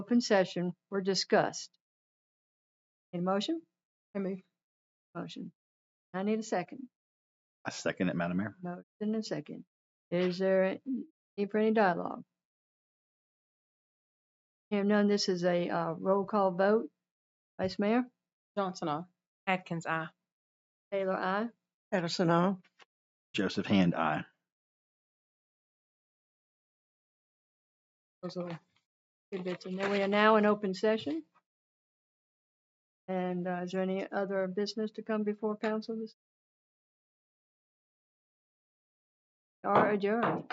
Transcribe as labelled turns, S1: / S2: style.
S1: open session were discussed. Need a motion? I move. Motion. I need a second.
S2: I second it, Madam Mayor.
S1: Motion and second. Is there a need for any dialogue? Hearing none, this is a uh, roll call vote. Vice Mayor,
S3: Johnson, aye.
S4: Atkins, aye.
S1: Taylor, aye.
S3: Edison, aye.
S2: Joseph Hand, aye.
S1: Those little tidbits. And then we are now in open session. And uh, is there any other business to come before council this? Are adjourned.